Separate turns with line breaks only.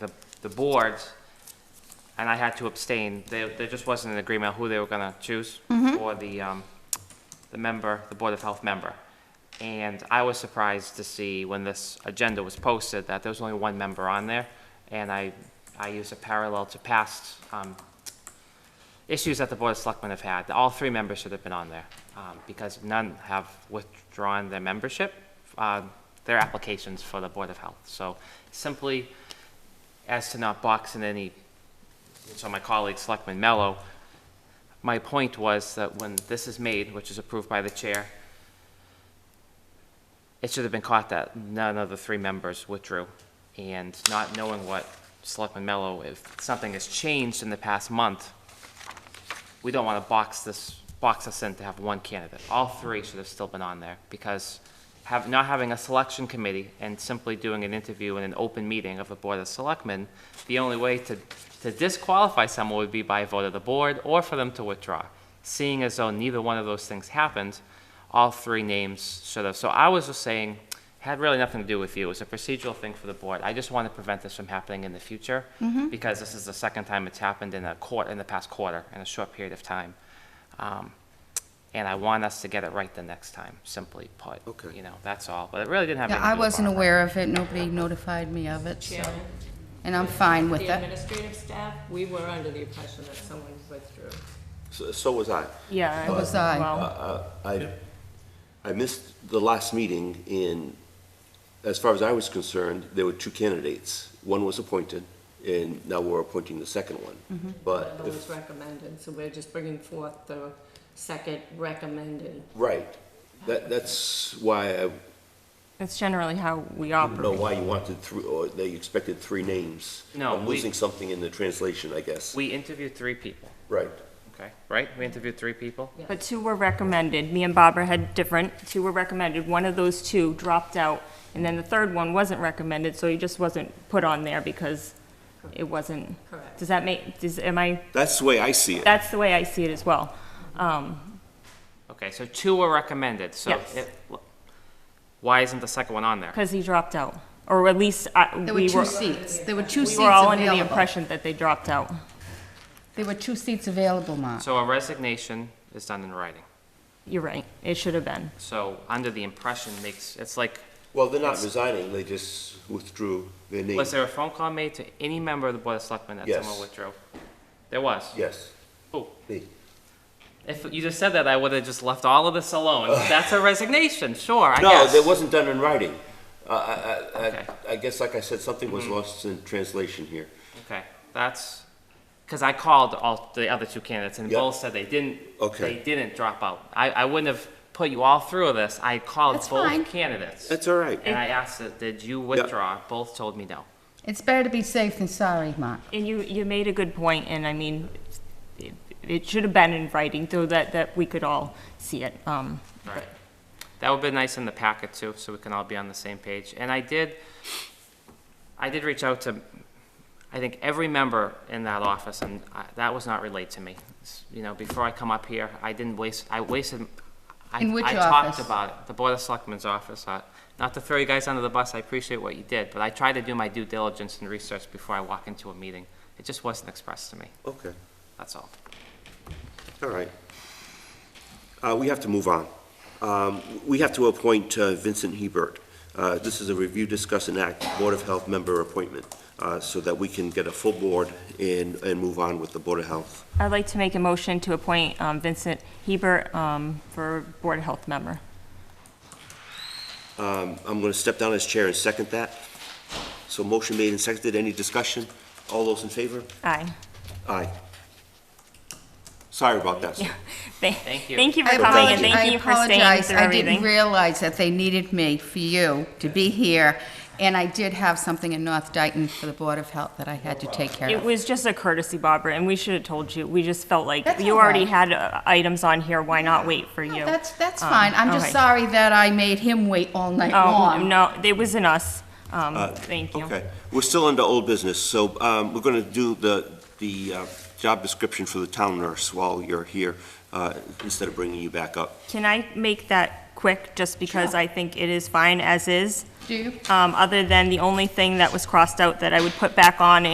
the boards, and I had to abstain. There, there just wasn't an agreement who they were gonna choose for the, um, the member, the Board of Health member. And I was surprised to see when this agenda was posted that there was only one member on there. And I, I used a parallel to past, um, issues that the Board of Selectmen have had. All three members should have been on there, um, because none have withdrawn their membership, uh, their applications for the Board of Health. So simply, as to not box in any, so my colleague, Selectman Mello, my point was that when this is made, which is approved by the chair, it should have been caught that none of the three members withdrew. And not knowing what Selectman Mello, if something has changed in the past month, we don't want to box this, box us in to have one candidate. All three should have still been on there, because have, not having a selection committee and simply doing an interview in an open meeting of the Board of Selectmen, the only way to, to disqualify someone would be by a vote of the board or for them to withdraw. Seeing as though neither one of those things happened, all three names should have. So I was just saying, had really nothing to do with you. It was a procedural thing for the board. I just want to prevent this from happening in the future
Mm-hmm.
because this is the second time it's happened in a court in the past quarter in a short period of time, um, and I want us to get it right the next time. Simply put,
Okay.
you know that's all. But it really didn't have.
Yeah,
anything
I
to do with
wasn't
Barbara.
aware of it, nobody notified me of it, so,
Chairman,
and I'm fine with
the
it.
administrative staff, we were under the impression that someone withdrew.
So so was I.
Yeah.
So was I.
Well,
Uh, I, I missed the last meeting in, as far as I was concerned, there were two candidates. One was appointed, and now we're appointing the second one. But,
Another was
if-
recommended, so we're just bringing forth the second recommended.
right, that, that's why I
that's generally how we
don't know
operate.
why you wanted three, or that you expected three names.
No,
I'm
we-
losing something in the translation, I guess.
We interviewed three people.
Right.
Okay, right? We interviewed three people.
Yeah.
But two were recommended. Me and Barbara had different. Two were recommended. One of those two dropped out, and then the third one wasn't recommended, so he just wasn't put on there because it wasn't.
Correct.
Does that make, does, am I,
That's the way I see it.
that's the way I see it as well. Um,
Okay, so two were recommended. So
Yes.
it, why isn't the second one on there?
cause he dropped out, or at least I,
There
we
were two
were,
seats, there were two
we
seats
were all under the
available.
impression that they dropped out.
There were two seats available, Mark.
So a resignation is done in writing.
You're right. It should have been.
So under the impression makes it's like
Well, they're not resigning, they just withdrew their name.
Was there a phone call made to any member of the Board of Selectmen that
Yes.
someone withdrew? There was?
Yes,
Who?
me.
If you just said that, I would have just left all of this alone. That's a resignation, sure, I
No,
guess.
that wasn't done in writing. I- I, I,
Okay. Mm-hmm.
I, I guess, like I said, something was lost in translation here.
Okay, that's, because I called all the other two candidates and
Yep.
both said they didn't, they
Okay.
didn't drop out. I, I wouldn't have put you all through this. I called
That's fine.
both candidates.
That's all right.
And I asked, that, did you withdraw? Both told me no.
It's better to be safe than sorry, Mark.
And you, you made a good point, and I mean, it- it should have been in writing, though that, that we could all see it. Um,
All right. That would be nice in the packet too, so we can all be on the same page. And I did, I did reach out to, I think, every member in that office, and I- that was not relayed to me. S- You know, before I come up here, I didn't waste, I wasted, I,
In which
I talked
office?
about it, the Board of Selectmen's office. I- Not to throw you guys under the bus, I appreciate what you did, but I tried to do my due diligence and research before I walk into a meeting. It just wasn't expressed to me,
Okay,
that's all.
all right. Uh, we have to move on. Um, we have to appoint uh, Vincent Hebert. Uh, this is a review, discuss, and act Board of Health member appointment, uh, so that we can get a full board and, and move on with the Board of Health.
I'd like to make a motion to appoint um, Vincent Hebert um, for Board of Health member.
I'm gonna step down as chair and second that. So motion made and seconded, any discussion? All those in favor?
Aye.
Aye. Sorry about that, sir.
Thank
you.
Thank you
I
for coming, and
apologi-
thank
I
you for staying
apologize.
through
I didn't
everything.
realize that they needed me for you to be here, and I did have something in North Dayton for the Board of Health that I had to take care
It
of.
was just a courtesy, Barbara, and we should have told you. We just felt like,
That's
you
all
already
right.
had uh, items on here, why not wait for you?
No, That's, that's
Um,
fine, I'm just
okay.
sorry that I made him wait all night
Oh,
long.
no, it was in us. Um, Thank you.
Okay, we're still under old business, so um, we're going to do the, the uh, job description for the town nurse while you're here, uh, instead of bringing you back up.
Can I make that quick, just because I think it is fine as is?
Do you?
Um, Other than the only thing that was crossed out that I would put back on